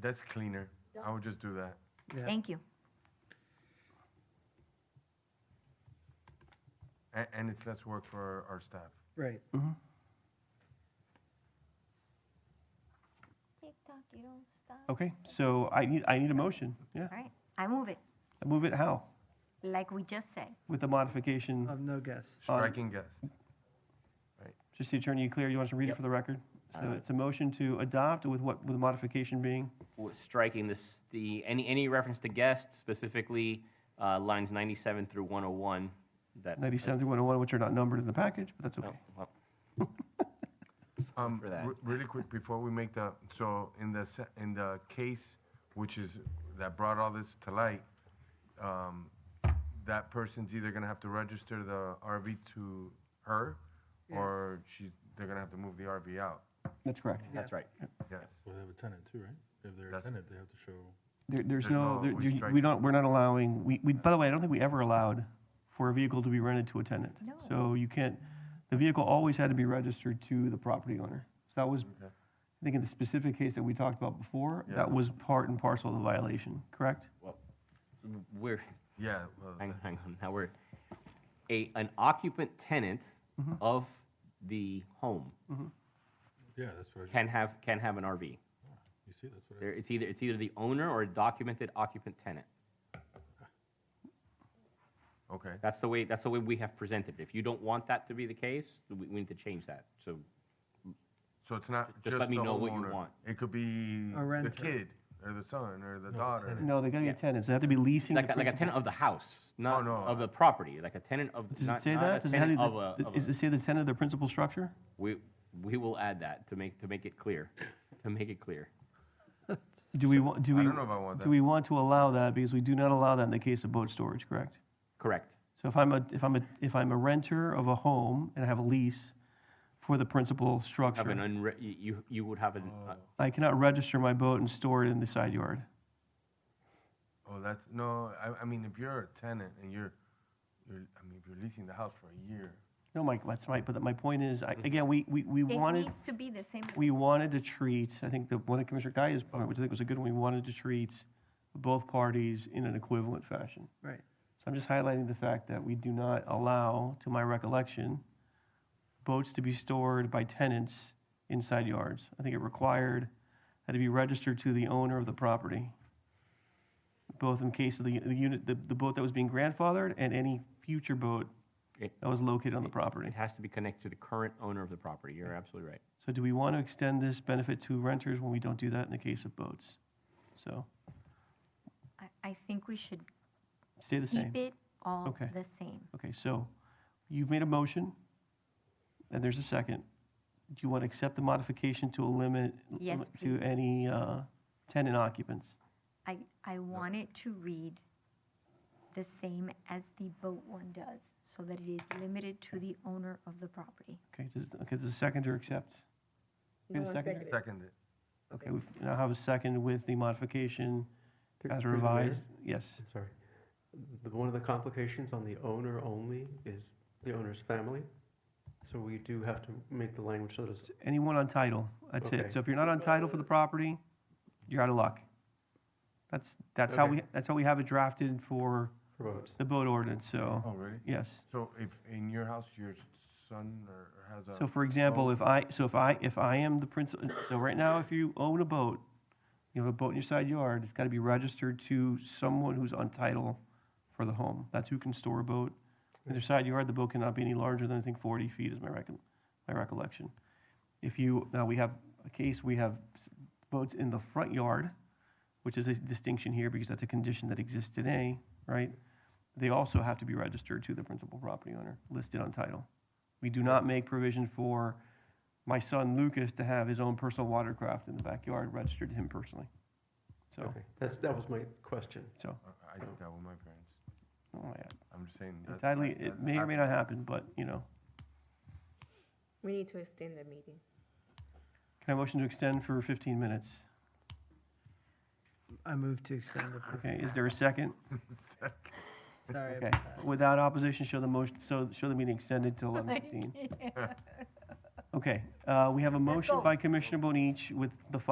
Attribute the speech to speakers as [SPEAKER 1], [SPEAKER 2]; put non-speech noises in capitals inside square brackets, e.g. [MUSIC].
[SPEAKER 1] that's cleaner. I would just do that.
[SPEAKER 2] Yeah.
[SPEAKER 3] Thank you.
[SPEAKER 1] And, and it's less work for our, our staff.
[SPEAKER 2] Right.
[SPEAKER 3] TikTok, you don't stop.
[SPEAKER 4] Okay, so I need, I need a motion, yeah.
[SPEAKER 3] All right, I move it,
[SPEAKER 4] Move it how?
[SPEAKER 3] like we just said.
[SPEAKER 4] With the modification,
[SPEAKER 2] Of no guess.
[SPEAKER 4] Um,
[SPEAKER 1] Striking guest.
[SPEAKER 5] [LAUGHS]
[SPEAKER 4] just the attorney, you clear, you want to read it for the record? So it's a motion to adopt with what, with the modification being?
[SPEAKER 5] w- striking this, the, any, any reference to guests, specifically uh, lines 97 through 101. That,
[SPEAKER 4] 97 through 101, which are not numbered in the package, but that's
[SPEAKER 5] Oh,
[SPEAKER 4] okay.
[SPEAKER 5] well,
[SPEAKER 1] Um,
[SPEAKER 5] for that.
[SPEAKER 1] re- Really quick, before we make the, so in the, se- in the case, which is, that brought all this to light, um, that person's either gonna have to register the RV to her, or she, they're gonna have to move the RV out.
[SPEAKER 4] That's correct.
[SPEAKER 5] That's right.
[SPEAKER 1] Yes.
[SPEAKER 6] Well, they have a tenant too, right? If they're a
[SPEAKER 1] That's-
[SPEAKER 6] tenant, they have to show,
[SPEAKER 4] There, there's
[SPEAKER 1] There's
[SPEAKER 4] no,
[SPEAKER 1] no-
[SPEAKER 4] there-
[SPEAKER 1] we
[SPEAKER 4] you-
[SPEAKER 1] strike
[SPEAKER 4] we
[SPEAKER 1] it.
[SPEAKER 4] don't, we're not allowing, we, we, by the way, I don't think we ever allowed for a vehicle to be rented to a tenant.
[SPEAKER 3] No.
[SPEAKER 4] So you can't, the vehicle always had to be registered to the property owner. So that was, I think in the specific case that we talked about before,
[SPEAKER 1] Yeah.
[SPEAKER 4] that was part and parcel of the violation, correct?
[SPEAKER 5] Well, we're,
[SPEAKER 1] Yeah, well,
[SPEAKER 5] hang, hang on, now we're, a, an occupant tenant of the home
[SPEAKER 6] yeah, that's what, I-
[SPEAKER 5] can have, can have an RV.
[SPEAKER 6] you see, that's what, I-
[SPEAKER 5] There, it's either, it's either the owner or a documented occupant tenant.
[SPEAKER 1] okay.
[SPEAKER 5] That's the way, that's the way we have presented it. If you don't want that to be the case, we, we need to change that. So,
[SPEAKER 1] So it's not
[SPEAKER 5] Just
[SPEAKER 1] just
[SPEAKER 5] let
[SPEAKER 1] the
[SPEAKER 5] me know what you
[SPEAKER 1] homeowner.
[SPEAKER 5] want.
[SPEAKER 1] It could be
[SPEAKER 2] A
[SPEAKER 1] the
[SPEAKER 2] renter.
[SPEAKER 1] kid, or the son, or the
[SPEAKER 6] No,
[SPEAKER 1] daughter.
[SPEAKER 6] tenant.
[SPEAKER 4] No, they gotta be tenants. They have to be leasing the
[SPEAKER 5] like, a- like a
[SPEAKER 4] principal.
[SPEAKER 5] tenant of the house, not
[SPEAKER 1] no.
[SPEAKER 5] of the property, like a tenant of,
[SPEAKER 4] Does it
[SPEAKER 5] not,
[SPEAKER 4] say
[SPEAKER 5] not
[SPEAKER 4] that?
[SPEAKER 5] a
[SPEAKER 4] Does it have
[SPEAKER 5] tenant
[SPEAKER 4] the-
[SPEAKER 5] of a, of
[SPEAKER 4] Does
[SPEAKER 5] a.
[SPEAKER 4] it say the tenant of the principal structure?
[SPEAKER 5] We, we will add that to make, to make it clear, to make it clear.
[SPEAKER 4] Do we want, do
[SPEAKER 1] I
[SPEAKER 4] we?
[SPEAKER 1] don't know if I want that.
[SPEAKER 4] Do we want to allow that? Because we do not allow that in the case of boat storage, correct?
[SPEAKER 5] Correct.
[SPEAKER 4] So if I'm a, if I'm a, if I'm a renter of a home and I have a lease for the principal
[SPEAKER 5] Have an
[SPEAKER 4] structure,
[SPEAKER 5] unre, you, you- you would have an, uh,
[SPEAKER 4] I cannot register my boat and store it in the side yard.
[SPEAKER 1] Oh, that's, no, I, I mean, if you're a tenant and you're, you're, I mean, if you're leasing the house for a year,
[SPEAKER 4] No, Mike, that's right, but my point is,
[SPEAKER 5] Mm-hmm.
[SPEAKER 4] I- again, we, we, we
[SPEAKER 3] It
[SPEAKER 4] wanted.
[SPEAKER 3] needs to be the same. as-
[SPEAKER 4] we wanted to treat, I think the one that Commissioner Guy's point, which I think was a good one, we wanted to treat both parties in an equivalent fashion.
[SPEAKER 2] Right.
[SPEAKER 4] So I'm just highlighting the fact that we do not allow, to my recollection, boats to be stored by tenants inside yards. I think it required that it be registered to the owner of the property, both in case of the, the unit, the, the boat that was being grandfathered and any future boat
[SPEAKER 5] It-
[SPEAKER 4] that was located on the
[SPEAKER 5] it
[SPEAKER 4] property.
[SPEAKER 5] has to be connected to the current owner of the property. You're absolutely right.
[SPEAKER 4] So do we want to extend this benefit to renters when we don't do that in the case of boats? So
[SPEAKER 3] I, I think we should
[SPEAKER 4] stay the
[SPEAKER 3] keep
[SPEAKER 4] same.
[SPEAKER 3] it all
[SPEAKER 4] Okay.
[SPEAKER 3] the same.
[SPEAKER 4] Okay, so you've made a motion, and there's a second. Do you want to accept the modification to a limit?
[SPEAKER 3] Yes,
[SPEAKER 4] To
[SPEAKER 3] please.
[SPEAKER 4] any uh, tenant occupants?
[SPEAKER 3] I, I want it to read the same as the boat one does, so that it is limited to the owner of the property.
[SPEAKER 4] Okay, does, okay, does the seconder accept? We have a second?
[SPEAKER 1] second it.
[SPEAKER 4] Okay, we now have a second with the modification
[SPEAKER 7] Through-
[SPEAKER 4] as
[SPEAKER 7] through the mayor?
[SPEAKER 4] revised. Yes,
[SPEAKER 7] I'm sorry. The, one of the complications on the owner only is the owner's family. So we do have to make the language so that it's,
[SPEAKER 4] anyone on title, that's
[SPEAKER 7] Okay.
[SPEAKER 4] it. So if you're not on title for the property, you're out of luck. That's, that's how
[SPEAKER 7] Okay.
[SPEAKER 4] we, that's how we have it drafted for
[SPEAKER 7] for votes.
[SPEAKER 4] the boat ordinance,
[SPEAKER 1] Oh,
[SPEAKER 7] Uh-huh.
[SPEAKER 4] so,
[SPEAKER 1] really?
[SPEAKER 4] yes.
[SPEAKER 1] So if in your house, your son or has a.
[SPEAKER 4] So for example, if I, so if I, if I am the principal, so right now, if you own a boat, you have a boat in your side yard, it's gotta be registered to someone who's on title for the home. That's who can store a boat. In their side yard, the boat cannot be any larger than, I think, forty feet is my recon, my recollection. If you, now, we have a case, we have s- boats in the front yard, which is a distinction here because that's a condition that exists today, right? They also have to be registered to the principal property owner, listed on title. We do not make provision for my son Lucas to have his own personal watercraft in the backyard registered to him personally. So,
[SPEAKER 7] Okay, that's, that was my question.
[SPEAKER 4] so,
[SPEAKER 1] I- I did that with my parents.
[SPEAKER 4] oh my God.
[SPEAKER 1] I'm just saying. that-
[SPEAKER 4] Entirely,
[SPEAKER 1] that-
[SPEAKER 4] it
[SPEAKER 1] that-
[SPEAKER 4] may or
[SPEAKER 1] I-
[SPEAKER 4] may not happen, but, you know.
[SPEAKER 8] We need to extend the meeting.
[SPEAKER 4] Can I motion to extend for 15 minutes?
[SPEAKER 2] I move to extend the.
[SPEAKER 4] Okay, is there
[SPEAKER 1] [LAUGHS]
[SPEAKER 4] a second?
[SPEAKER 2] Sorry.
[SPEAKER 4] Okay. Without opposition, show the motion, so, show the meeting extended
[SPEAKER 8] [LAUGHS]
[SPEAKER 4] till 11:15. Okay, uh, we have a motion by Commissioner Bonich with the following